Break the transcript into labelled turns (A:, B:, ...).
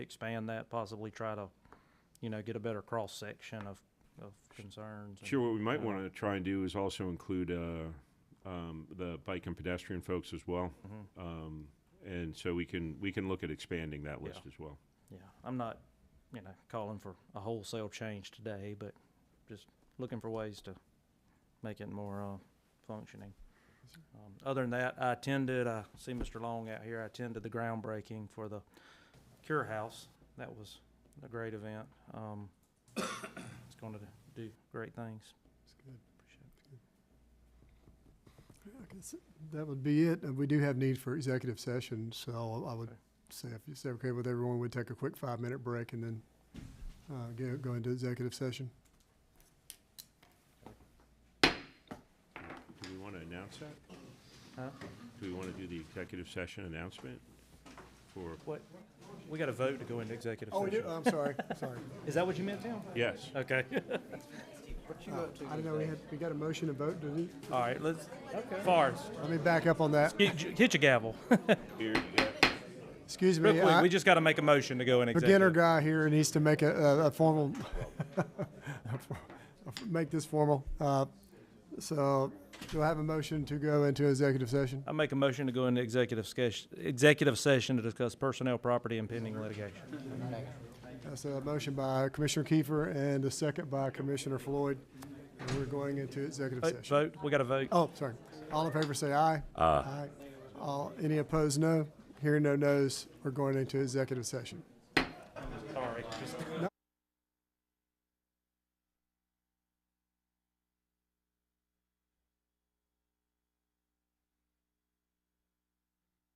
A: expand that, possibly try to, you know, get a better cross-section of, of concerns. and-
B: Sure, what we might
A: Yeah.
B: want to try and do is also include uh, um, the bike and pedestrian folks as well.
A: Mhm.
B: Um, And so we can, we can look at expanding that list as well.
A: Yeah, I'm not, you know, calling for a wholesale change today, but just looking for ways to make it more, uh, functioning. Um, Other than that, I attended, I see Mr. Long out here, I attended the groundbreaking for the Cure House. That was a great event. Um, it's gonna do great things.
C: That's good. Yeah, I guess That would be it. Uh, We do have need for executive session, so I would
A: Okay.
C: say if it's okay with everyone, we'd take a quick five-minute break and then uh, go go into executive session.
B: Do we want to announce that?
A: Huh?
B: Do we want to do the executive session announcement for,
A: What, we got a vote to go into executive
C: Oh,
A: session.
C: I'm sorry, sorry.
A: Is that what you meant, Tim?
B: yes?
A: Okay,
C: I don't know, we had, we got a motion to vote, did we?
A: all right, let's, Forrest,
C: Let me back up on that.
A: hit your- hit your gavel.
C: Excuse
A: Real
C: me.
A: quick,
C: I-
A: we just got to make a motion to go in
C: beginner
A: executive.
C: guy here needs to make a, a, a formal, make this formal. Uh, So do I have a motion to go into executive session?
A: I make a motion to go into executive session, executive session to discuss personnel, property, and pending litigation.
C: That's a motion by Commissioner Kiefer and a second by Commissioner Floyd. And we're going into executive
A: Vote-
C: session.
A: Vote, we got to vote.
C: Oh, sorry. All in favor, say aye. Aye. All, any opposed, no. Hearing no nos, we're going into executive session.